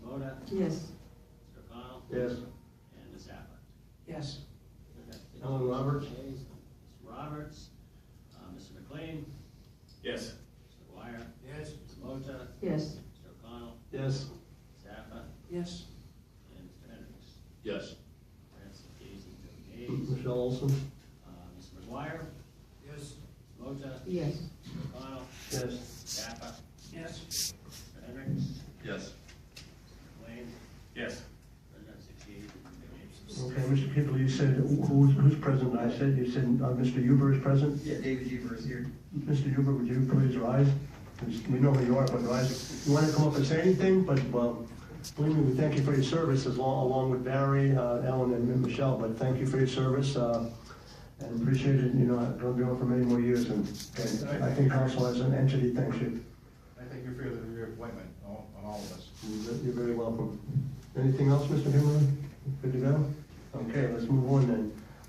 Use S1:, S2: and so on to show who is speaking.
S1: Yes.
S2: Mr. O'Connell?
S3: Yes.
S2: And Ms. Abbott?
S4: Yes.
S3: Alan Roberts?
S2: Ayes. Mr. Roberts, uh, Mr. McLean,
S5: Yes.
S2: Mr. Dwyer,
S5: Yes.
S2: Mr. Mota,
S1: Yes.
S2: Mr. O'Connell,
S3: Yes.
S2: Ms. Abbott,
S4: Yes.
S2: and Mr. Hendricks.
S5: Yes.
S2: That's the yeas and no nays.
S3: Michelle Olson?
S2: Uh, Mr. McGuire,
S5: Yes.
S2: Mr. Mota,
S1: Yes.
S2: Mr. O'Connell,
S3: Yes.
S2: Ms. Abbott,
S4: Yes.
S2: Mr. Hendricks,
S5: Yes.
S2: Mr. McLean,
S5: Yes.
S2: and that's the yeas and no nays.
S3: Okay, Mr. Kibble, you said, who's, who's present? I said, you said, uh, Mr. Huber is present?
S6: Yeah, David Huber is here.
S3: Mr. Huber, would you please rise? We know who you are, but rise. You want to come up and say anything, but, well, believe me, we thank you for your service as long, along with Barry, uh, Ellen and Michelle, but thank you for your service, uh, and appreciate it, you know, it's going to be on for many more years, and, and I think council as an entity thanks you.
S7: I thank you for your- for your appointment on on all of us.
S3: You're very welcome. Anything else, Mr. Himmler? Good to go? Okay, let's move on then.